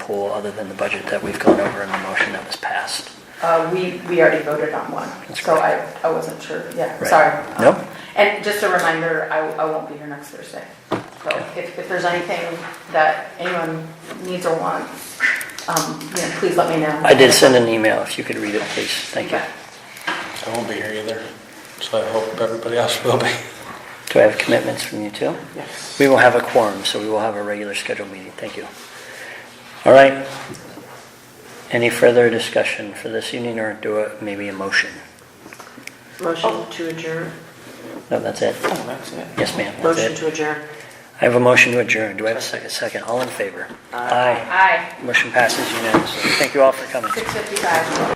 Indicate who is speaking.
Speaker 1: pool other than the budget that we've gone over in the motion that was passed?
Speaker 2: Uh, we, we already voted on one,
Speaker 1: That's
Speaker 2: so I,
Speaker 1: correct.
Speaker 2: I wasn't sure, yeah,
Speaker 1: Right.
Speaker 2: sorry. Um,
Speaker 1: No.
Speaker 2: And just a reminder, I, I won't be here next Thursday. So if, if there's anything that anyone needs or wants, um, you know, please let me know.
Speaker 1: I did send an email, if you could read it, please, thank you.
Speaker 2: Yeah.
Speaker 3: I won't be here either, so I hope everybody else will be.
Speaker 1: Do I have commitments from you too?
Speaker 2: Yes.
Speaker 1: We will have a quorum, so we will have a regular scheduled meeting, thank you. All right. Any further discussion for this evening, or do a, maybe a motion?
Speaker 4: Motion to adjourn.
Speaker 1: No, that's it.
Speaker 4: Oh, that's it.
Speaker 1: Yes, ma'am, that's
Speaker 4: Motion
Speaker 1: it.
Speaker 4: to adjourn.
Speaker 1: I have a motion to adjourn, do I have a second? Second, all in favor? Aye.
Speaker 2: Aye,
Speaker 1: Motion passes unanimously, thank you all for coming.
Speaker 2: six fifty-five.